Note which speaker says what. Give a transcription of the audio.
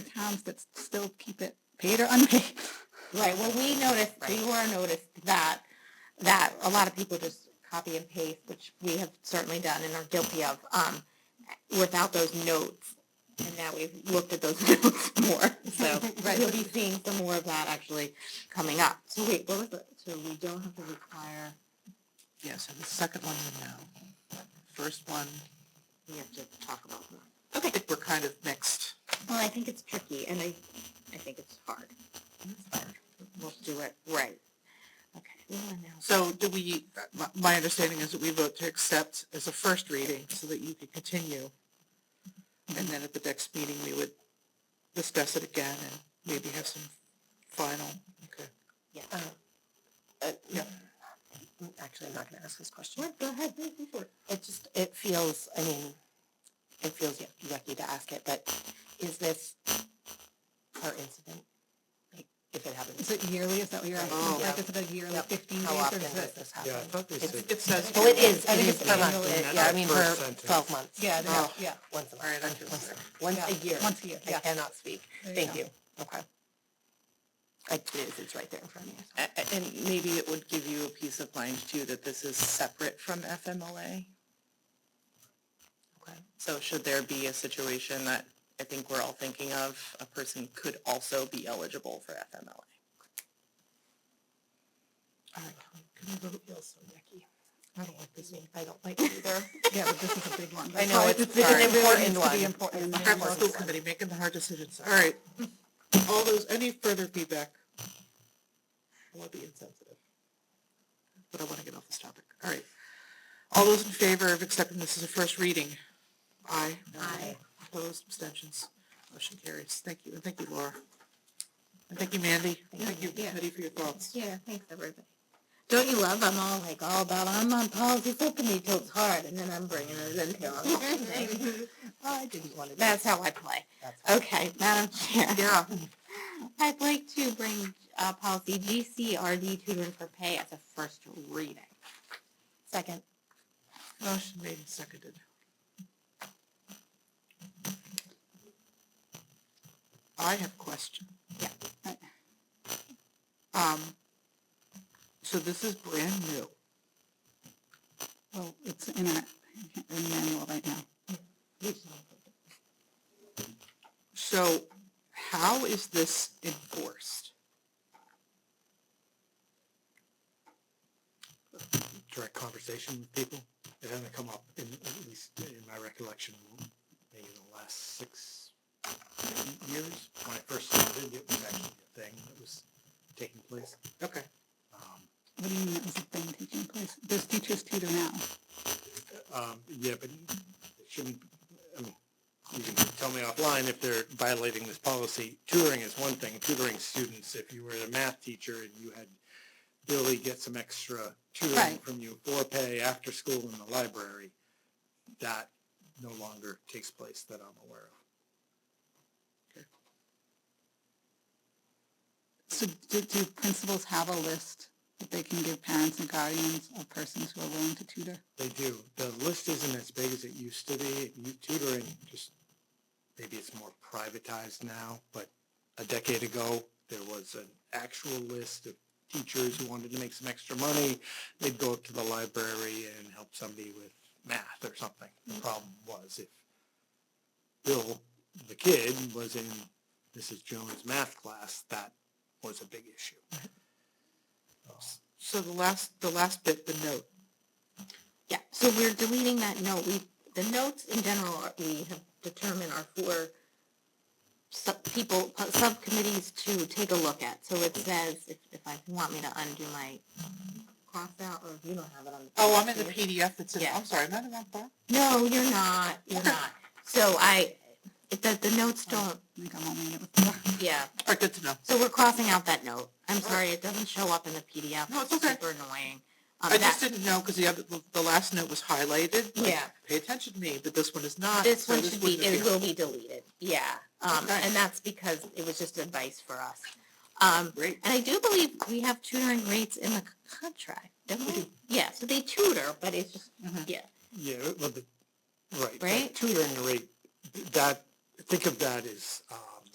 Speaker 1: towns that s- still keep it paid or unpaid.
Speaker 2: Right, well, we noticed, we were noticed that, that a lot of people just copy and paste, which we have certainly done and are guilty of, um, without those notes. And now we've looked at those notes more, so
Speaker 1: Right.
Speaker 2: we'll be seeing some more of that actually coming up.
Speaker 3: So wait, what was the, so we don't have to require,
Speaker 4: Yeah, so the second one, we know. First one,
Speaker 3: we have to talk about that.
Speaker 4: I think we're kind of mixed.
Speaker 2: Well, I think it's tricky and I, I think it's hard. We'll do it right. Okay, we'll announce.
Speaker 4: So do we, my- my understanding is that we vote to accept as a first reading so that you could continue. And then at the next meeting, we would discuss it again and maybe have some final, okay.
Speaker 2: Yeah.
Speaker 3: Uh,
Speaker 4: Yeah.
Speaker 3: I'm Actually, I'm not gonna ask this question.
Speaker 2: What, go ahead, go for it.
Speaker 3: It just, it feels, I mean, it feels yuck- yucky to ask it, but is this per incident? Like, if it happens,
Speaker 1: Is it yearly? Is that what you're asking?
Speaker 3: Oh.
Speaker 1: Like, is it a yearly,
Speaker 3: Yep.
Speaker 1: 15 days?
Speaker 3: how
Speaker 1: or
Speaker 3: often
Speaker 1: is
Speaker 3: does
Speaker 1: it?
Speaker 3: this
Speaker 5: Yeah, I
Speaker 3: happen?
Speaker 5: thought they said.
Speaker 4: It says.
Speaker 3: Well, it is, I think
Speaker 4: It
Speaker 3: it's
Speaker 4: is
Speaker 3: per month,
Speaker 4: annually.
Speaker 3: yeah, I mean, per
Speaker 5: First sentence.
Speaker 3: twelve months.
Speaker 1: Yeah, there-
Speaker 3: Oh,
Speaker 1: yeah.
Speaker 3: Once a
Speaker 4: All right, I
Speaker 3: month,
Speaker 4: feel
Speaker 3: once
Speaker 4: better.
Speaker 3: a- once a
Speaker 1: Yeah,
Speaker 3: year.
Speaker 1: Once a year,
Speaker 3: I
Speaker 1: yeah.
Speaker 3: cannot speak.
Speaker 1: There
Speaker 3: Thank
Speaker 1: go.
Speaker 3: you. Okay. I, it is, it's right there in front of me.
Speaker 6: A- a- And maybe it would give you a peace of mind too, that this is separate from FMLA.
Speaker 3: Okay.
Speaker 6: So should there be a situation that I think we're all thinking of, a person could also be eligible for FMLA?
Speaker 3: All right, can we vote? Feels so yucky. I don't like this one. I don't like it either.
Speaker 1: Yeah, but this is a big one.
Speaker 3: I
Speaker 1: That's
Speaker 3: know,
Speaker 1: why
Speaker 3: it's-
Speaker 1: this-
Speaker 3: it's an
Speaker 1: it really
Speaker 3: important
Speaker 1: needs to be
Speaker 3: one.
Speaker 1: important.
Speaker 3: It's
Speaker 4: Have
Speaker 3: Yeah.
Speaker 4: the school committee making the hard decisions. All right. All those, any further feedback? I want to be insensitive. But I want to get off this topic. All right. All those in favor of accepting this as a first reading? Aye. No?
Speaker 2: Aye.
Speaker 4: Opposed, abstentions, motion carries. Thank you, and thank you, Laura. And thank you, Mandy. And Thank you, committee, for your thoughts.
Speaker 2: Yeah, thanks everybody. Don't you love, I'm all like, all about, I'm on policy full committee till it's hard, and then I'm bringing it into all the thing.
Speaker 3: I didn't want to.
Speaker 2: That's how I play. Okay, Madam Chair. Yeah. I'd like to bring, uh, policy GCRD tutoring for pay as a first reading. Second.
Speaker 4: Motion made and seconded. I have a question.
Speaker 1: Yeah.
Speaker 4: Um, so this is brand new.
Speaker 1: Well, it's in our in manual right now.
Speaker 4: So how is this enforced?
Speaker 5: Direct conversation with people. It hasn't come up in, at least in my recollection, maybe in the last six years. When I first started, it was actually a thing that was taking place.
Speaker 4: Okay,
Speaker 5: Um,
Speaker 1: What do you mean that was a thing taking place? There's teachers tutor now.
Speaker 5: Um, yeah, but it shouldn't, I mean, you can tell me offline if they're violating this policy. Tutoring is one thing, tutoring students, if you were a math teacher and you had Billy get some extra tutoring
Speaker 1: Right.
Speaker 5: from you for pay after school in the library, that no longer takes place that I'm aware of.
Speaker 1: So do, do principals have a list that they can give parents and guardians of persons who are willing to tutor?
Speaker 5: They do, the list isn't as big as it used to be, You- tutoring just, maybe it's more privatized now, but a decade ago, there was an actual list of teachers who wanted to make some extra money, they'd go up to the library and help somebody with math or something. The problem was if Bill, the kid, was in Mrs. Jones' math class, that was a big issue.
Speaker 4: so the last, the last bit, the note.
Speaker 2: Yeah, so we're deleting that note. We, the notes in general, are- we have determined are for sub, people, uh, subcommittees to take a look at. So it says, if, if I want me to undo my cross out, or if you don't have it on. the
Speaker 4: Oh, I'm in the
Speaker 2: page.
Speaker 4: PDF that's in,
Speaker 2: Yeah.
Speaker 4: I'm sorry, am I in that box?
Speaker 2: No, you're not, you're not. So I, it, the, the notes don't,
Speaker 1: I think I'm only in it with four.
Speaker 2: yeah,
Speaker 4: All right, good to know.
Speaker 2: so we're crossing out that note. I'm sorry, it doesn't show up in the PDF.
Speaker 4: No, it's okay.
Speaker 2: Super annoying. Um,
Speaker 4: I just
Speaker 2: that-
Speaker 4: didn't know because the other, the- the last note was highlighted. like,
Speaker 2: Yeah.
Speaker 4: Pay attention to me, but this one is not.
Speaker 2: This
Speaker 4: so
Speaker 2: one should be,
Speaker 4: wouldn't
Speaker 2: it
Speaker 4: appear.
Speaker 2: will be deleted, yeah. Um,
Speaker 4: Okay.
Speaker 2: and that's because it was just advice for us. Um,
Speaker 4: Great.
Speaker 2: and I do believe we have tutoring rates in the c- contract, don't we? Yeah, so they tutor, but it's just, yeah,
Speaker 5: Yeah, well, the, right. that
Speaker 2: Right?
Speaker 5: Tutoring rate, that, think of that as, um,